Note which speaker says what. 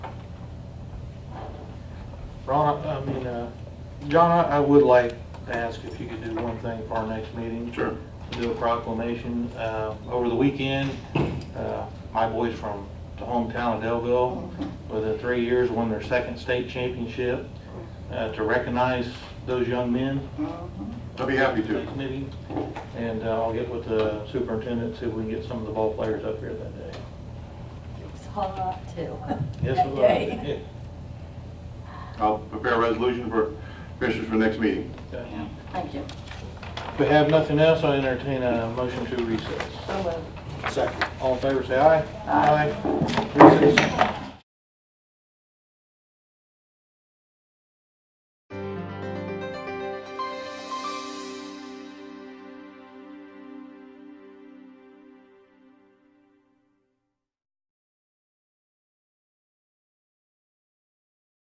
Speaker 1: Ron, I I mean, uh, John, I I would like to ask if you could do one thing for our next meeting.
Speaker 2: Sure.
Speaker 1: Do a proclamation. Uh, Over the weekend, uh, my boys from the hometown of Delville, within three years, won their second state championship. Uh, To recognize those young men,
Speaker 2: I'd be happy to.
Speaker 1: maybe, and uh, I'll get with the superintendent, see if we can get some of the ball players up here that day.
Speaker 3: It was hot too.
Speaker 1: Yes,
Speaker 3: that
Speaker 1: we will.
Speaker 3: day.
Speaker 1: Yeah.
Speaker 2: I'll prepare a resolution for commissioners for next meeting.
Speaker 1: Okay.
Speaker 3: Yeah, Thank you.
Speaker 1: If we have nothing else, I entertain a motion to recess.
Speaker 3: So moved.
Speaker 1: All in favor, say aye.
Speaker 3: Aye.
Speaker 1: Recess.